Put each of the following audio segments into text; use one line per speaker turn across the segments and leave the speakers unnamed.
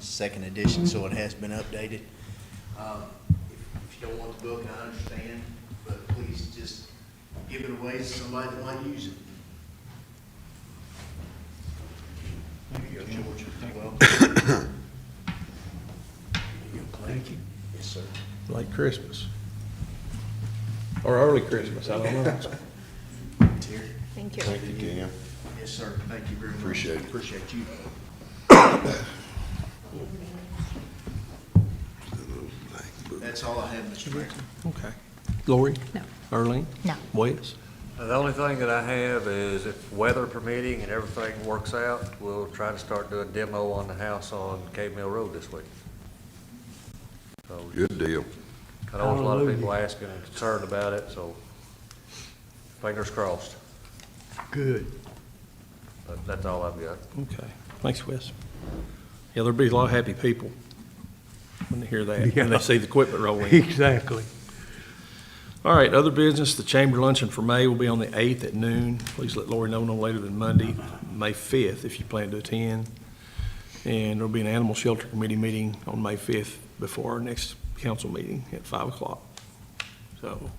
second edition, so it has been updated. Um, If if you don't want the book, I understand, but please just give it away to somebody that might use it. Thank you, George. Thank you. Yes, sir.
Like Christmas. Or early Christmas, I don't know.
Terry?
Thank you.
Thank you, Tim.
Yes, sir. Thank you very much.
Appreciate it.
Appreciate you. That's all I have, Mr. Mayor.
Okay. Lori?
No.
Early?
No.
Wes?
The only thing that I have is if weather permitting and everything works out, we'll try to start doing demo on the house on Cave Mill Road this week. So
Good deal.
I know there's a lot of people asking and concerned about it, so fingers crossed.
Good.
But That's all I've got.
Okay. Thanks, Wes. Yeah, there'll be a lot of happy people when they hear that, when they see the equipment rolling.
Exactly.
All right, other business, the chamber luncheon for May will be on the 8th at noon. Please let Lori know no later than Monday, May 5th, if you plan to attend. And there'll be an animal shelter committee meeting on May 5th before our next council meeting at 5 o'clock. So,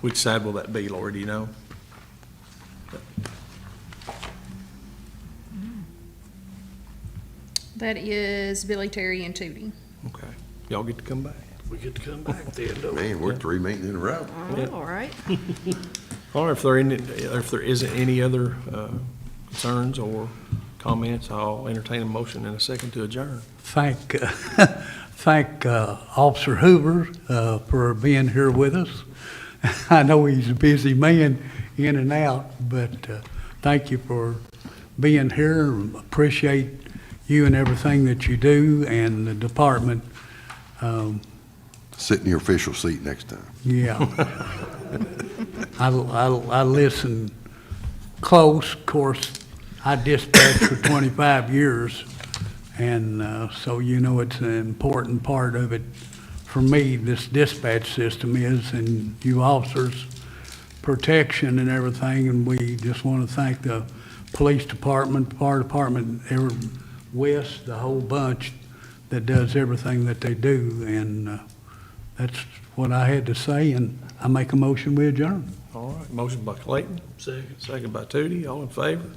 which side will that be, Lori, do you know?
That is Billy Terry and Tootie.
Okay, y'all get to come back.
We get to come back then, don't we?
Man, we're three meetings in a row.
Yeah.
All right.
Or if there any, if there isn't any other uh, concerns or comments, I'll entertain a motion in a second to adjourn.
Thank, uh, thank uh, Officer Hoover uh, for being here with us. I know he's a busy man in and out, but uh, thank you for being here. Appreciate you and everything that you do and the department. Um,
Sit in your official seat next time.
Yeah. I, I, I listen close, of course, I dispatched for 25 years, and uh, so you know it's an important part of it. For me, this dispatch system is, and you officers, protection and everything, and we just want to thank the police department, fire department, every, West, the whole bunch that does everything that they do, and uh, that's what I had to say, and I make a motion, we adjourn.
All right, motion by Clayton. Second. Second by Tootie, all in favor?